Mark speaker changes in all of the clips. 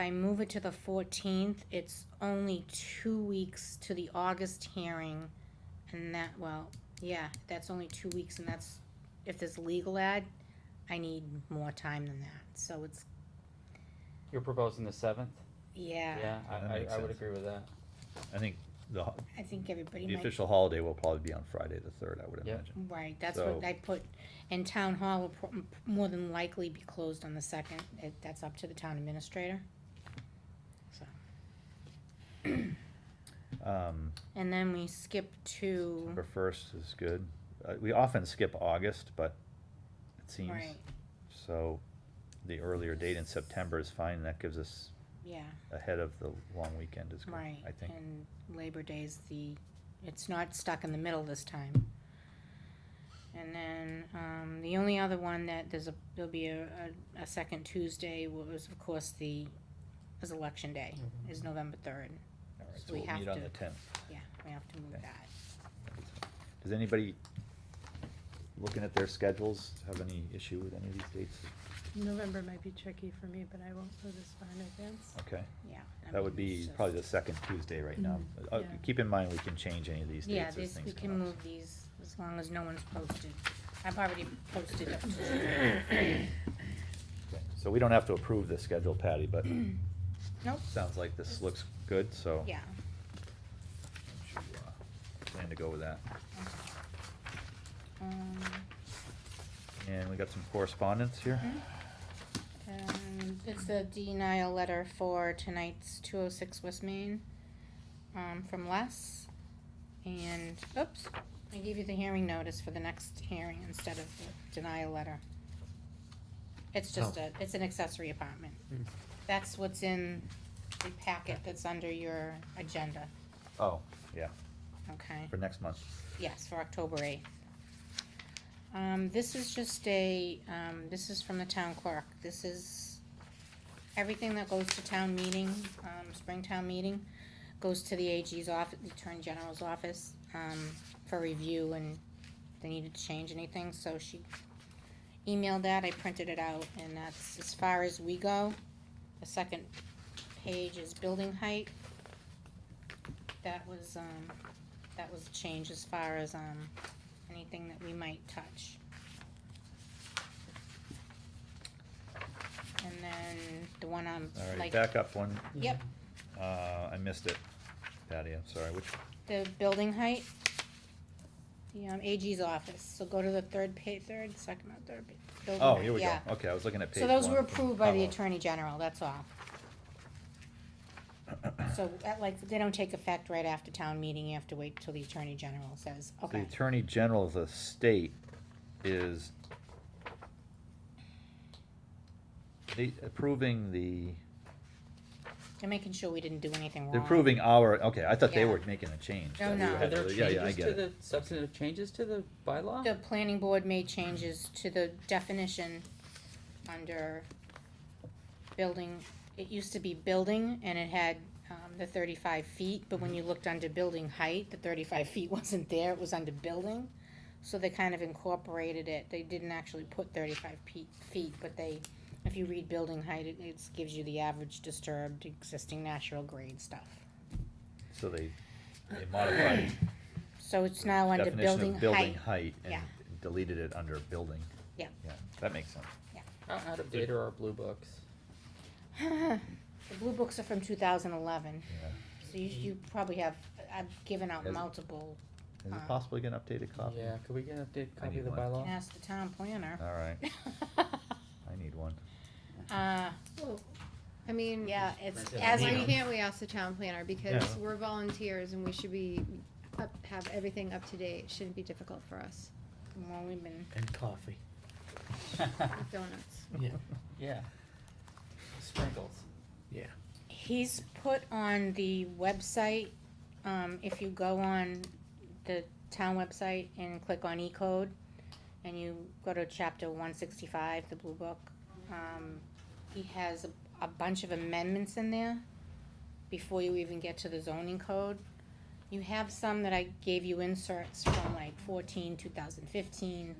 Speaker 1: I move it to the fourteenth, it's only two weeks to the August hearing, and that, well, yeah, that's only two weeks, and that's, if there's legal ad, I need more time than that, so it's,
Speaker 2: You're proposing the seventh?
Speaker 1: yeah,
Speaker 2: Yeah, I,
Speaker 3: That
Speaker 2: I,
Speaker 3: makes
Speaker 2: I would
Speaker 3: sense.
Speaker 2: agree with that.
Speaker 3: I think the, ho-
Speaker 1: I think everybody
Speaker 3: the
Speaker 1: might.
Speaker 3: official holiday will probably be on Friday, the third, I would
Speaker 2: Yeah.
Speaker 3: imagine.
Speaker 1: Right, that's what
Speaker 3: So-
Speaker 1: I put, and town hall will pro- more than likely be closed on the second, It- that's up to the town administrator.
Speaker 3: Um,
Speaker 1: And then we skip to,
Speaker 3: September first is good. Uh, we often skip August, but it seems,
Speaker 1: right,
Speaker 3: so the earlier date in September is fine. That gives us
Speaker 1: yeah,
Speaker 3: ahead of the long weekend is good,
Speaker 1: right,
Speaker 3: I think.
Speaker 1: and Labor Day's the, it's not stuck in the middle this time. And then, um, the only other one that there's a, there'll be a, a, a second Tuesday was, of course, the, is election day,
Speaker 3: Mm-hmm.
Speaker 1: is November third,
Speaker 3: All right,
Speaker 1: so
Speaker 3: so
Speaker 1: we
Speaker 3: we'll
Speaker 1: have
Speaker 3: meet on
Speaker 1: to-
Speaker 3: the tenth.
Speaker 1: yeah, we have to move
Speaker 3: Okay.
Speaker 1: that.
Speaker 3: Does anybody, looking at their schedules, have any issue with any of these dates?
Speaker 4: November might be tricky for me, but I won't know this far in advance.
Speaker 3: Okay,
Speaker 1: Yeah. I
Speaker 3: that would
Speaker 1: mean, it's
Speaker 3: be
Speaker 1: just- Mm-hmm.
Speaker 3: probably the second Tuesday right now.
Speaker 4: Mhm,
Speaker 3: Uh,
Speaker 4: yeah.
Speaker 3: Keep in mind, we can change any of these
Speaker 1: Yeah,
Speaker 3: dates as
Speaker 1: this, we
Speaker 3: things
Speaker 1: can
Speaker 3: come up.
Speaker 1: move these as long as no one's posted. I've already posted up to.
Speaker 3: Okay, So we don't have to approve the schedule, Patty, but
Speaker 1: Nope,
Speaker 3: sounds like this looks good, so.
Speaker 1: yeah.
Speaker 3: we should, uh, Plan to go with that.
Speaker 1: Um,
Speaker 3: And we got some correspondence here.
Speaker 1: Mm-hmm. um, It's a denial letter for tonight's two oh six West Main, um, from Les. And, oops, I gave you the hearing notice for the next hearing instead of the denial letter. It's just
Speaker 2: Oh.
Speaker 1: a, it's an accessory apartment.
Speaker 2: Mm.
Speaker 1: That's what's in the packet that's under your agenda,
Speaker 3: Oh, yeah,
Speaker 1: okay?
Speaker 3: for next month.
Speaker 1: Yes, for October eighth. Um, this is just a, um, this is from the town clerk, this is, everything that goes to town meeting, um, spring town meeting, goes to the AG's office, the Attorney General's office, um, for review and if they needed to change anything, so she emailed that, I printed it out, and that's as far as we go. The second page is building height. That was, um, that was a change as far as, um, anything that we might touch. And then the one on,
Speaker 3: All right,
Speaker 1: like,
Speaker 3: back up one.
Speaker 1: yep,
Speaker 3: Uh, I missed it. Patty, I'm sorry, which,
Speaker 1: the building height, the, um, AG's office, so go to the third pa- third, second, or third. pa- building
Speaker 3: oh,
Speaker 1: height,
Speaker 3: here we go.
Speaker 1: yeah.
Speaker 3: Okay, I was looking at page
Speaker 1: So
Speaker 3: one.
Speaker 1: those were approved by the
Speaker 3: Oh,
Speaker 1: Attorney General, that's all. So, that, like, they don't take effect right after town meeting, you have to wait till the Attorney General says,
Speaker 3: The
Speaker 1: okay,
Speaker 3: Attorney General of the state is the- approving the,
Speaker 1: they're making sure we didn't do anything wrong.
Speaker 3: they're approving our, okay, I thought they
Speaker 1: Yeah.
Speaker 3: were making a change.
Speaker 1: No,
Speaker 3: that we
Speaker 1: no.
Speaker 3: had
Speaker 2: Are there
Speaker 3: to- Yeah, yeah, I
Speaker 2: changes
Speaker 3: get
Speaker 2: to
Speaker 3: it.
Speaker 2: the, substantive changes to the bylaw?
Speaker 1: The planning board made changes to the definition under building, it used to be building, and it had, um, the thirty-five feet, but
Speaker 3: Mm-hmm.
Speaker 1: when you looked under building height, the thirty-five feet wasn't there, it was under building. So they kind of incorporated it, they didn't actually put thirty-five pe- feet, but they, if you read building height, it, it gives you the average disturbed existing natural grade stuff.
Speaker 3: So they, they modified
Speaker 1: So it's now
Speaker 3: the
Speaker 1: under
Speaker 3: definition
Speaker 1: building
Speaker 3: of building
Speaker 1: height,
Speaker 3: height and
Speaker 1: Yeah.
Speaker 3: deleted it under building.
Speaker 1: Yeah.
Speaker 3: Yeah, that makes sense.
Speaker 2: How out of date are our blue books?
Speaker 1: the blue books are from two thousand eleven.
Speaker 3: Yeah.
Speaker 1: So you, you probably have, I've given out
Speaker 3: Yes.
Speaker 1: multiple,
Speaker 3: Is
Speaker 1: Uh,
Speaker 3: it possible to get an updated copy?
Speaker 2: Yeah, could we get an updated
Speaker 3: I
Speaker 2: copy of
Speaker 3: need
Speaker 2: the
Speaker 3: one.
Speaker 1: Can
Speaker 2: bylaw?
Speaker 1: ask the town planner.
Speaker 3: All right, I need one.
Speaker 1: Uh,
Speaker 4: I mean,
Speaker 1: yeah, it's,
Speaker 2: Right,
Speaker 1: as
Speaker 4: why
Speaker 2: yeah.
Speaker 1: we,
Speaker 4: can't we ask the town planner, because
Speaker 3: Yeah.
Speaker 4: we're volunteers and we should be, up- have everything up to date, It shouldn't be difficult for us,
Speaker 1: well, we've been,
Speaker 5: And coffee.
Speaker 4: With donuts.
Speaker 5: Yeah.
Speaker 2: Yeah. Sprinkles.
Speaker 5: Yeah.
Speaker 1: he's put on the website, um, if you go on the town website and click on E-code, and you go to chapter one sixty-five, the blue book, um, he has a, a bunch of amendments in there before you even get to the zoning code. You have some that I gave you inserts from like 14, 2015.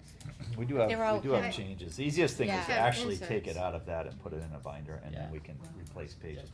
Speaker 3: We do have,
Speaker 1: They're all
Speaker 3: we do have
Speaker 4: kind-
Speaker 3: changes. The easiest thing
Speaker 1: Yeah.
Speaker 3: is to
Speaker 4: Have
Speaker 3: actually take it
Speaker 4: inserts.
Speaker 3: out of that and put it in a binder, and
Speaker 2: Yeah.
Speaker 3: then we can replace pages.